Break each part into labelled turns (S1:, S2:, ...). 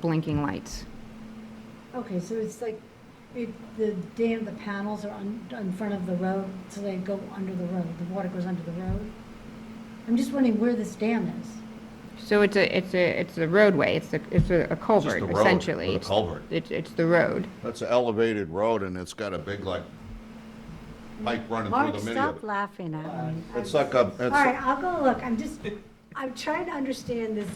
S1: blinking lights.
S2: Okay, so it's like, it, the dam, the panels are on, in front of the road, so they go under the road, the water goes under the road? I'm just wondering where this dam is.
S1: So it's a, it's a, it's a roadway, it's a, it's a a culvert
S3: road
S1: essentially.
S3: with a
S1: It's-
S3: culvert.
S1: It's, it's the road.
S3: That's an elevated road and it's got a big like pipe running
S4: Mark,
S3: through the middle
S4: stop
S3: of it. Uh,
S4: laughing at me.
S3: It's like a,
S2: All
S3: it's,
S2: right, I'll go look, I'm just, I'm trying to understand this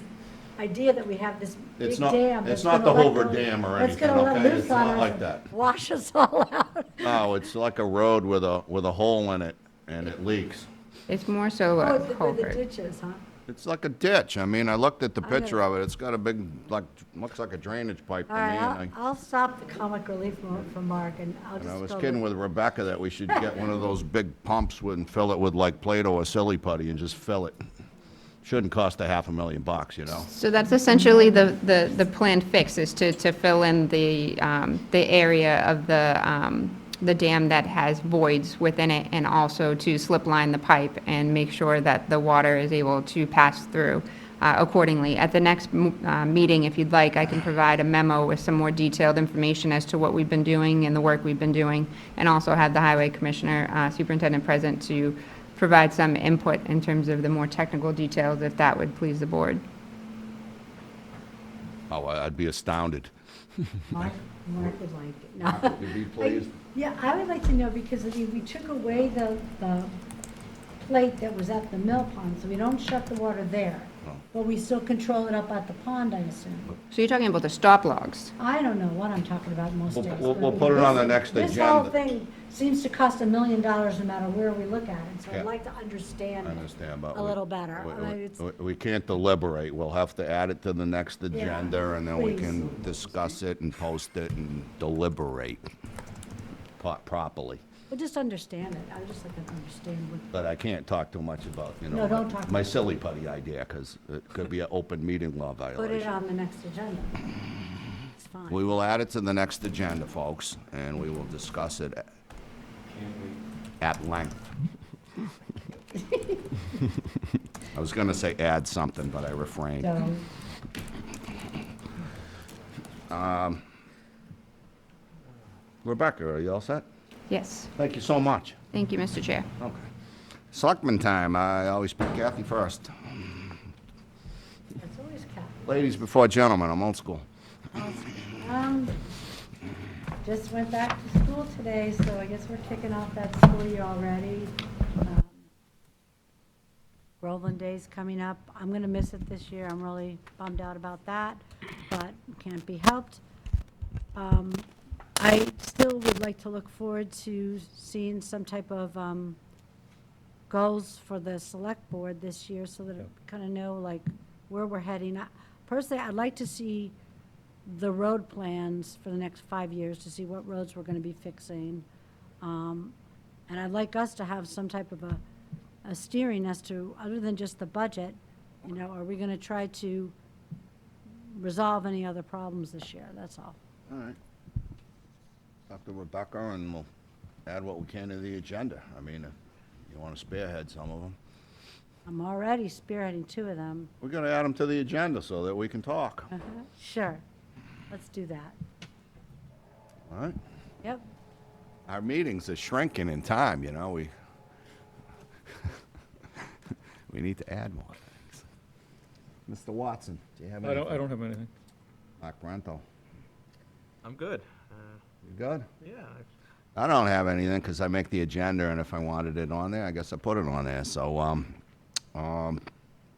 S2: idea that we have this big
S3: It's not-
S2: dam.
S3: it's
S2: that's
S3: not
S2: gonna
S3: the
S2: let
S3: Hoover
S2: go-
S3: Dam or
S2: that's gonna
S3: anything,
S2: let
S3: okay?
S2: loose
S3: It's not
S2: on us
S3: like
S2: and
S3: that.
S2: Wash us all out.
S3: no, it's like a road with a, with a hole in it and it leaks.
S1: It's more so
S4: Oh,
S1: a
S4: it's where the
S1: culvert.
S4: ditch is, huh?
S3: It's like a ditch. I mean, I looked at the
S4: I know.
S3: picture of it. It's got a big, like, looks like a drainage pipe to
S4: All
S3: me.
S4: right,
S3: And
S4: I'll,
S3: I,
S4: I'll stop the comic relief mo- for Mark, and I'll just
S3: and
S4: go.
S3: I was
S4: look.
S3: kidding with Rebecca that we should get one of those big pumps with- and fill it with like Play-Doh or silly putty and just fill it. Shouldn't cost a half a million bucks, you know?
S1: So that's essentially the, the, the planned fix is to, to fill in the, um, the area of the, um, the dam that has voids within it and also to slip line the pipe and make sure that the water is able to pass through uh, accordingly. At the next, m- uh, meeting, if you'd like, I can provide a memo with some more detailed information as to what we've been doing and the work we've been doing. And also have the highway commissioner, uh, superintendent present to provide some input in terms of the more technical details if that would please the board.
S3: Oh, I- I'd be astounded.
S4: Mark, Mark would like it, no.
S3: You'd be
S2: I-
S3: pleased.
S2: Yeah, I would like to know, because I mean, we took away the, the plate that was at the mill pond, so we don't shut the water there. But we still control it up at the pond, I assume.
S1: So you're talking about the stop logs?
S2: I don't know what I'm talking about most
S3: We'll-
S2: days.
S3: we'll-
S2: but
S3: we'll
S2: I mean,
S3: put it on
S2: this-
S3: the next
S2: This whole
S3: agenda.
S2: thing seems to cost a million dollars no matter where we look at it, so
S3: Yeah.
S2: I'd like to
S3: I
S2: understand. it
S3: understand, but.
S4: A
S3: we-
S4: little better.
S3: we-
S4: I mean, it's-
S3: we- We can't deliberate. We'll have to add it to the next agenda and then we can discuss it and post it and deliberate po- properly.
S4: Well, just understand it, I would just like to understand what,
S3: But I can't talk too much about, you know.
S2: No, don't talk about
S3: My
S2: it.
S3: silly putty idea, because it could be an open meeting law
S4: put it
S3: violation.
S4: on the next agenda. It's fine.
S3: We will add it to the next agenda, folks, and we will discuss it at length. I was gonna say add something, but I refrained.
S2: So,
S3: Rebecca, are you all set?
S1: Yes.
S3: Thank you so much.
S1: Thank you, Mr. Chair.
S3: Okay. Selectman time, I always pick Kathy first.
S2: it's always capital.
S3: Ladies before gentlemen, I'm old school.
S2: Um, just went back to school today, so I guess we're kicking off that school year already. Um,
S4: Groveland Day's coming up, I'm gonna miss it this year, I'm really bummed out about that, but can't be helped. Um, I still would like to look forward to seeing some type of, um, goals for the select board this year so that it kind of know like where we're heading. I- Personally, I'd like to see the road plans for the next five years to see what roads we're going to be fixing. Um, And I'd like us to have some type of a, a steering as to, other than just the budget, you know, are we going to try to resolve any other problems this year? That's all.
S3: All right. Talk to Rebecca and we'll add what we can to the agenda. I mean, if you want to spearhead some of them.
S4: I'm already spearheading two of them.
S3: We're going to add them to the agenda so that we can talk.
S4: Uh-huh.
S3: All
S4: Sure, let's do that.
S3: right?
S4: Yep.
S3: Our meetings are shrinking in time, you know, we, we need to add more things. Mr. Watson, do you have
S5: I
S3: anything?
S5: don't, I don't have anything.
S3: Mark Bronto,
S6: I'm good. Uh,
S3: you good?
S6: yeah, I-
S3: I don't have anything because I make the agenda, and if I wanted it on there, I guess I put it on there. So, um, um,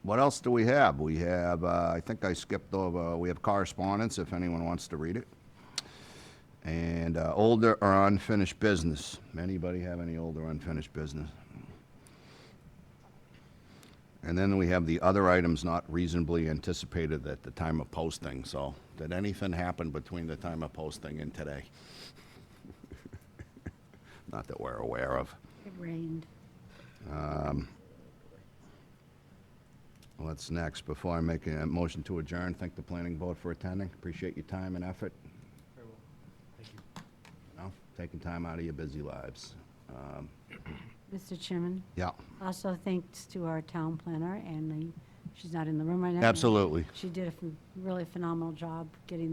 S3: what else do we have? We have, uh, I think I skipped over, we have correspondence if anyone wants to read it. And uh, older or unfinished business. Anybody have any older unfinished business? And then we have the other items not reasonably anticipated at the time of posting. So, did anything happen between the time of posting and today? Not that we're aware of.
S4: It rained.
S3: What's next? Before I make a motion to adjourn, thank the planning board for attending. Appreciate your time and effort. Very well. Thank you. know, taking time out of your busy lives. Um,
S4: Mr. Chairman?
S3: Yeah,
S4: Also, thanks to our town planner and the She's not in the room right now.
S3: Absolutely.
S4: She did a ph- really phenomenal job getting